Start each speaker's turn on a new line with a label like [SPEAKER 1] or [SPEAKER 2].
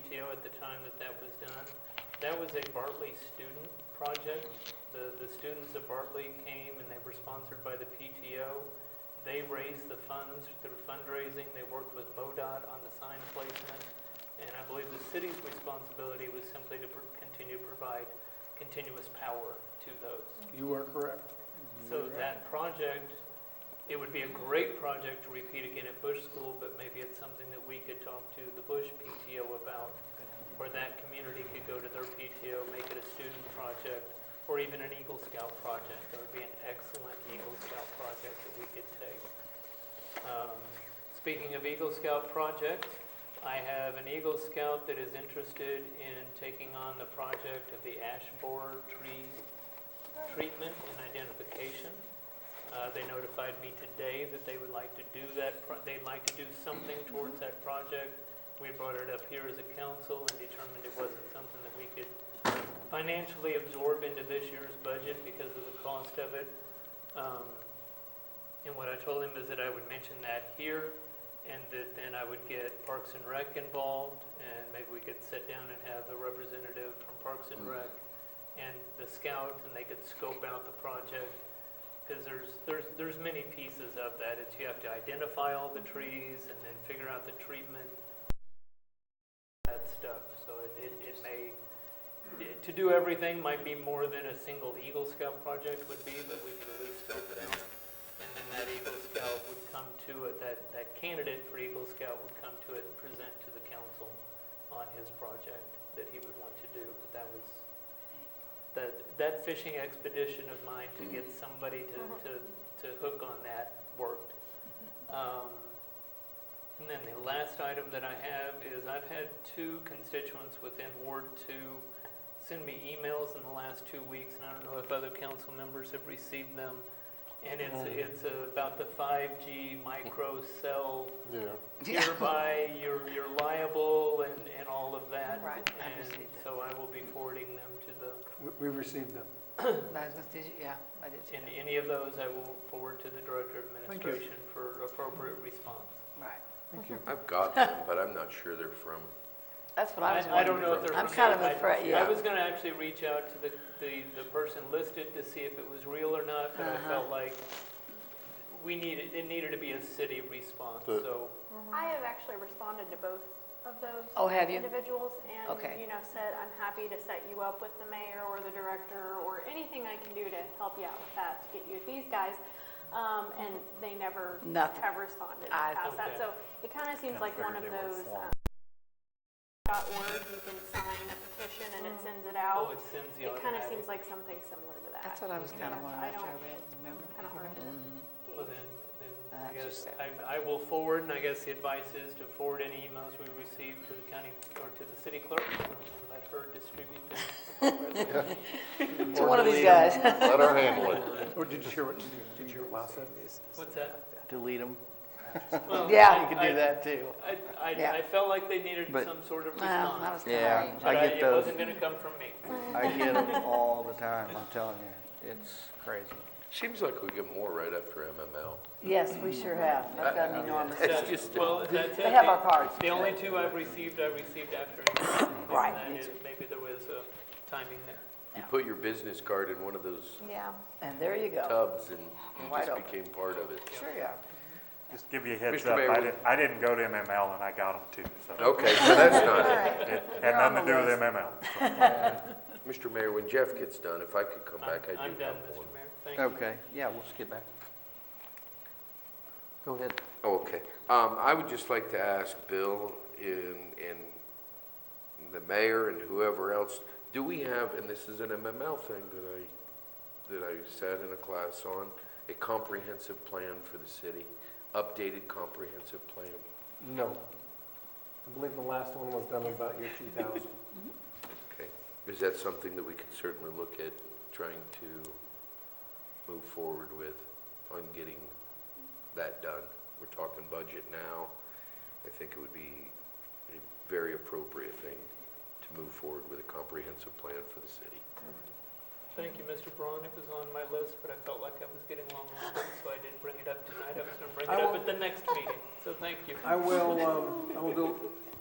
[SPEAKER 1] at the time that that was done. That was a Bartley student project. The, the students of Bartley came and they were sponsored by the PTO. They raised the funds through fundraising, they worked with MoDOT on the sign placement, and I believe the city's responsibility was simply to pr- continue to provide continuous power to those.
[SPEAKER 2] You are correct.
[SPEAKER 1] So that project, it would be a great project to repeat again at Bush School, but maybe it's something that we could talk to the Bush PTO about, or that community could go to their PTO, make it a student project, or even an Eagle Scout project. That would be an excellent Eagle Scout project that we could take. Um, Speaking of Eagle Scout projects, I have an Eagle Scout that is interested in taking on the project of the ash borer tree treatment and identification. Uh, They notified me today that they would like to do that, pro- they'd like to do something towards that project. We brought it up here as a council and determined it wasn't something that we could financially absorb into this year's budget because of the cost of it. Um, And what I told him is that I would mention that here, and that then I would get Parks and Rec involved, and maybe we could sit down and have a representative from Parks and Rec and the scout, and they could scope out the project. Because there's, there's, there's many pieces of that. It's you have to identify all the trees and then figure out the treatment, that stuff. So it- it, it may, to do everything might be more than a single Eagle Scout project would be, but we could at least scope it out. And then that Eagle Scout would come to it, that, that candidate for Eagle Scout would come to it and present to the council on his project that he would want to do. But that was, that, that fishing expedition of mine to get somebody to, to, to hook on that worked. Um, And then the last item that I have is I've had two constituents within Ward Two send me emails in the last two weeks, and I don't know if other council members have received them. And it's,
[SPEAKER 2] Mm.
[SPEAKER 1] it's about the 5G micro cell
[SPEAKER 2] Yeah.
[SPEAKER 1] hereby you're, you're liable and, and all of that.
[SPEAKER 3] Right, I
[SPEAKER 1] And
[SPEAKER 3] received it.
[SPEAKER 1] so I will be forwarding them to the,
[SPEAKER 2] We- We've received them.
[SPEAKER 3] I was gonna say, yeah, I did see
[SPEAKER 1] in
[SPEAKER 3] that.
[SPEAKER 1] any of those, I will forward to the Director of
[SPEAKER 2] Thank you.
[SPEAKER 1] Administration for appropriate response.
[SPEAKER 3] Right.
[SPEAKER 2] Thank you.
[SPEAKER 4] I've got them, but I'm not sure they're from,
[SPEAKER 3] That's what I
[SPEAKER 1] I,
[SPEAKER 3] was
[SPEAKER 1] I don't
[SPEAKER 3] wondering.
[SPEAKER 1] know if they're.
[SPEAKER 3] I'm
[SPEAKER 1] from
[SPEAKER 3] kind of
[SPEAKER 1] you. I-
[SPEAKER 3] afraid,
[SPEAKER 1] I
[SPEAKER 3] yeah.
[SPEAKER 1] was gonna actually reach out to the, the, the person listed to see if it was real or not, but I
[SPEAKER 3] Uh-huh.
[SPEAKER 1] felt like we needed, it needed to be a city response,
[SPEAKER 2] The-
[SPEAKER 1] so.
[SPEAKER 5] I have actually responded to both of those.
[SPEAKER 3] Oh, have you?
[SPEAKER 5] Individuals, and,
[SPEAKER 3] Okay.
[SPEAKER 5] you know, said, I'm happy to set you up with the mayor or the director, or anything I can do to help you out with that, to get you with these guys. Um, and they never
[SPEAKER 3] Nothing.
[SPEAKER 5] have responded
[SPEAKER 3] I-
[SPEAKER 5] past that,
[SPEAKER 1] Okay.
[SPEAKER 5] so it kinda seems like one of those, um, dot org, you can sign a petition and it sends it
[SPEAKER 1] Oh,
[SPEAKER 5] out.
[SPEAKER 1] it sends the
[SPEAKER 5] It kinda
[SPEAKER 1] automatic.
[SPEAKER 5] seems like something similar to that.
[SPEAKER 3] That's what I was kind of wondering
[SPEAKER 5] I
[SPEAKER 3] after I
[SPEAKER 5] don't,
[SPEAKER 3] read, remember?
[SPEAKER 5] kinda hard to gauge.
[SPEAKER 1] Well, then, then I
[SPEAKER 3] Uh, just
[SPEAKER 1] guess,
[SPEAKER 3] say-
[SPEAKER 1] I, I will forward, and I guess the advice is to forward any emails we receive to the county, or to the city clerk, and let her distribute them.
[SPEAKER 6] Mm-hmm.
[SPEAKER 3] To one of these guys.
[SPEAKER 4] let her handle it.
[SPEAKER 2] Or did you hear what, did you hear what Lyle said?
[SPEAKER 1] What's that?
[SPEAKER 6] delete them.
[SPEAKER 1] Well,
[SPEAKER 3] Yeah.
[SPEAKER 1] I-
[SPEAKER 6] You can
[SPEAKER 1] I-
[SPEAKER 6] do that too.
[SPEAKER 1] I, I,
[SPEAKER 3] Yeah.
[SPEAKER 1] I felt like they needed
[SPEAKER 6] But-
[SPEAKER 1] some sort of
[SPEAKER 3] Well, that
[SPEAKER 1] response.
[SPEAKER 3] was kind
[SPEAKER 6] Yeah.
[SPEAKER 3] of
[SPEAKER 1] But
[SPEAKER 6] I
[SPEAKER 1] I-
[SPEAKER 6] get
[SPEAKER 1] it
[SPEAKER 6] those.
[SPEAKER 1] wasn't gonna come from me.
[SPEAKER 6] I get them all the time, I'm telling you. It's crazy.
[SPEAKER 4] Seems like we get more right after MML.
[SPEAKER 3] Yes, we sure have. I've got an enormous,
[SPEAKER 4] It's just,
[SPEAKER 1] Well, that's it.
[SPEAKER 3] they have our cards.
[SPEAKER 1] The only two I've received, I received after.
[SPEAKER 3] Right,
[SPEAKER 1] And
[SPEAKER 3] me
[SPEAKER 1] that
[SPEAKER 3] too.
[SPEAKER 1] is- Maybe there was uh, timing there.
[SPEAKER 4] you put your business card in one of those
[SPEAKER 3] Yeah, and there you go.
[SPEAKER 4] tubs and you
[SPEAKER 3] Wide
[SPEAKER 4] just
[SPEAKER 3] open.
[SPEAKER 4] became part of it.
[SPEAKER 3] Sure you are.
[SPEAKER 7] Just give you a heads
[SPEAKER 4] Mr.
[SPEAKER 7] up,
[SPEAKER 4] Mayor,
[SPEAKER 7] I
[SPEAKER 4] we-
[SPEAKER 7] didn't, I didn't go to MML and I got them too, so
[SPEAKER 4] Okay, so that's not
[SPEAKER 3] All
[SPEAKER 4] it.
[SPEAKER 3] right.
[SPEAKER 7] it
[SPEAKER 3] You're
[SPEAKER 7] had
[SPEAKER 3] on
[SPEAKER 7] nothing
[SPEAKER 3] the
[SPEAKER 7] to do with
[SPEAKER 3] list.
[SPEAKER 7] MML.
[SPEAKER 4] Mr. Mayor, when Jeff gets done, if I could come
[SPEAKER 1] I'm,
[SPEAKER 4] back, I
[SPEAKER 1] I'm
[SPEAKER 4] do
[SPEAKER 1] done,
[SPEAKER 4] have
[SPEAKER 1] Mr.
[SPEAKER 4] one.
[SPEAKER 1] Mayor. Thank you.
[SPEAKER 6] Okay, yeah, we'll skip back. Go ahead.
[SPEAKER 4] Okay, um, I would just like to ask Bill and, and the mayor and whoever else, do we have, and this is an MML thing that I, that I sat in a class on, a comprehensive plan for the city, updated comprehensive plan?
[SPEAKER 2] No. I believe the last one was done about year 2000.
[SPEAKER 4] Okay, is that something that we could certainly look at trying to move forward with on getting that done? We're talking budget now. I think it would be a very appropriate thing to move forward with a comprehensive plan for the city.
[SPEAKER 1] Thank you, Mr. Braun. It was on my list, but I felt like I was getting long-winded, so I didn't bring it up tonight. I was going to bring
[SPEAKER 2] I
[SPEAKER 1] it up
[SPEAKER 2] will-
[SPEAKER 1] at the next meeting, so thank you.
[SPEAKER 2] I will, um, I will go,